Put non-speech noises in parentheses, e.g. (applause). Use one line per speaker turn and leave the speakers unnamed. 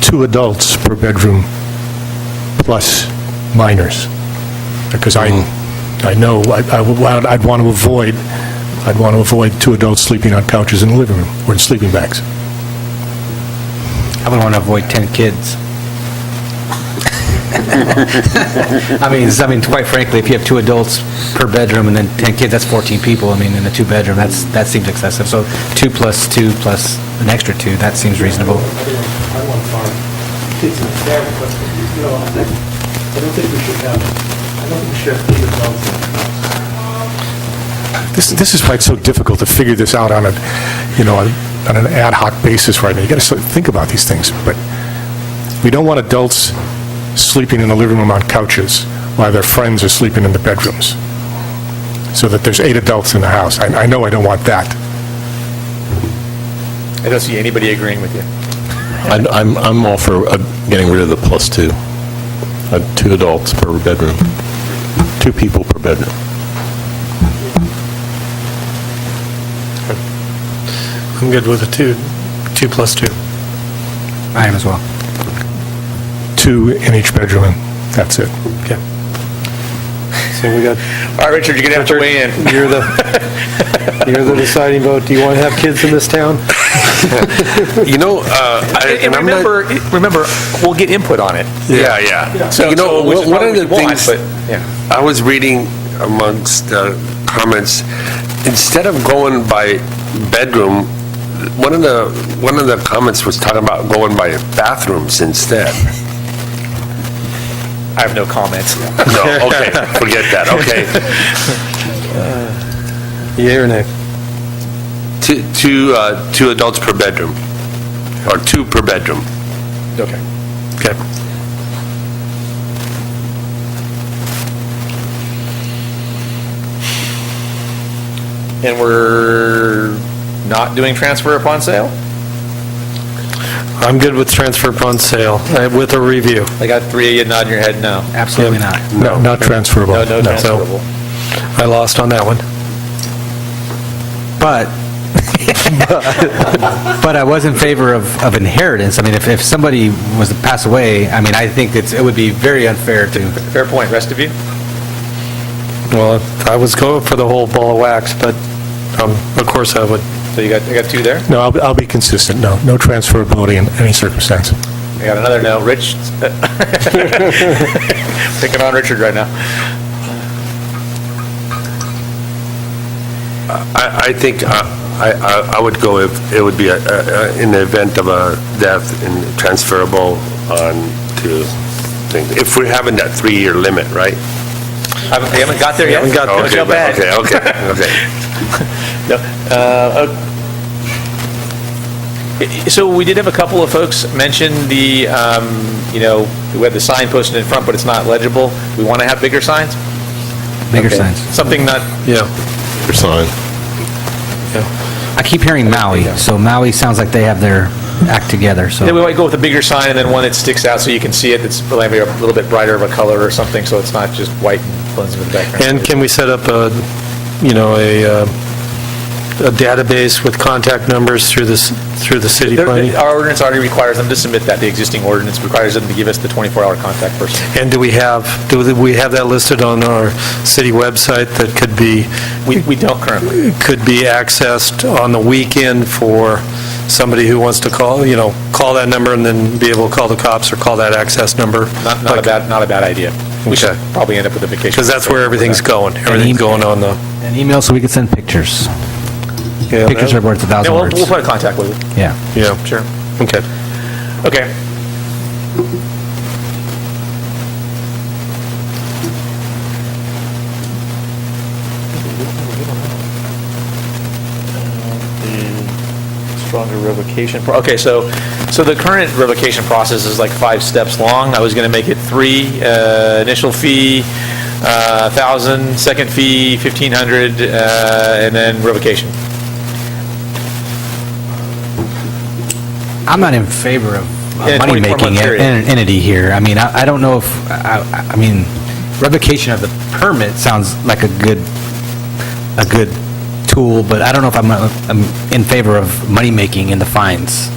two adults per bedroom plus minors. Because I, I know, I- I would- I'd I'd want to avoid, I'd want to avoid two adults sleeping on couches in the living room or in sleeping bags.
I would want to avoid 10 kids. I mean, s- I mean, quite frankly, if you have two adults per bedroom and then 10 kids, that's 14 people, I mean, in a two-bedroom, that's, that seems excessive. So two plus two plus an extra two, that seems reasonable.
I want five kids in the family, but, you know, I think, I don't think we should have, I don't think we should have eight adults in the house.
This, this is why it's so difficult to figure this out on a, you know, on an ad hoc basis right now. You got to think about these things, but we don't want adults sleeping in the living room on couches while their friends are sleeping in the bedrooms, so that there's eight adults in the house. I, I know I don't want that.
I don't see anybody agreeing with you.
I'd- I'm, I'm all for uh, getting rid of the plus two. Uh, Two adults per bedroom, two people per bedroom.
I'm good with a two, two plus two.
I am as well.
Two in each bedroom, and that's it.
Okay. So we got,
All right, Richard, you're going to have to weigh in.
you're the, (laughs) you're the deciding vote. Do you want to have kids in this town?
You know, uh, I-
And
and I'm not...
remember, remember, we'll get input on it.
Yeah, yeah. So, you know,
which is
one of
probably
the
what we want,
things,
but, yeah.
I was reading amongst uh, comments, instead of going by bedroom, one of the, one of the comments was talking about going by bathrooms instead. (laughs)
I have no comments.
No, okay, forget that, okay. (laughs)
Yea or nay?
Two- Two, uh, two adults per bedroom, or two per bedroom.
Okay.
Okay.
And we're not doing transfer upon sale?
I'm good with transfer upon sale, uh, with a review.
I got three of you nodding your head no.
Absolutely not.
No. Not transferable.
No, no transferable.
I lost on that one.
But, (laughs) but I was in favor of, of inheritance. I mean, if, if somebody was to pass away, I mean, I think it's, it would be very unfair to,
Fair point. Rest of you?
Well, I was going for the whole ball of wax, but um, of course I would.
So you got, I got two there?
No, I'll, I'll be consistent, no, no transferability in any circumstance.
I got another no. Rich? (laughs) Picking on Richard right now.
I, I think, uh, I, I- I would go if, it would be, a- a- a- in the event of a death and transferable on to things, if we're having that three-year limit, right? Oh,
I haven't- We haven't got there yet. Don't
Okay,
feel
but-
bad.
Okay, okay, okay.
No, uh, o- So we did have a couple of folks mention the, um, you know, we have the sign posted in front, but it's not legible. We want to have bigger signs?
bigger
Okay.
signs.
Something not,
Yeah,
Per sign.
I keep hearing Maui, so Maui sounds like they have their act together, so.
then we might go with a bigger sign and then one that sticks out so you can see it, that's maybe a little bit brighter of a color or something, so it's not just white and blends with the background.
and can we set up a, you know, a, uh, a database with contact numbers through this, through the city
There-
planning?
Our ordinance already requires them to submit that, the existing ordinance requires them to give us the 24-hour contact person.
And do we have, do we have that listed on our city website that could be,
We we don't currently.
could be accessed on the weekend for somebody who wants to call, you know, call that number and then be able to call the cops or call that access number?
Not, not a bad, not a bad idea. We should
Okay.
probably end up with a vacation.
Because that's where everything's going, everything's going on the...
An email so we can send pictures.
Yeah,
Pictures are worth a
Yeah,
thousand
we'll, we'll
words.
put a contact with it.
Yeah.
Yeah,
Sure.
okay.
Okay. Stronger revocation, pro- okay, so, so the current revocation process is like five steps long. I was going to make it three, uh, initial fee, uh, 1,000, second fee, 1,500, uh, and then revocation.
I'm not in favor of
Yeah,
a
24 month
money-making en-
period.
en- entity here. I mean, I, I don't know if, I, I- I mean, revocation of the permit sounds like a good, a good tool, but I don't know if I'm, uh, I'm in favor of money-making in the fines.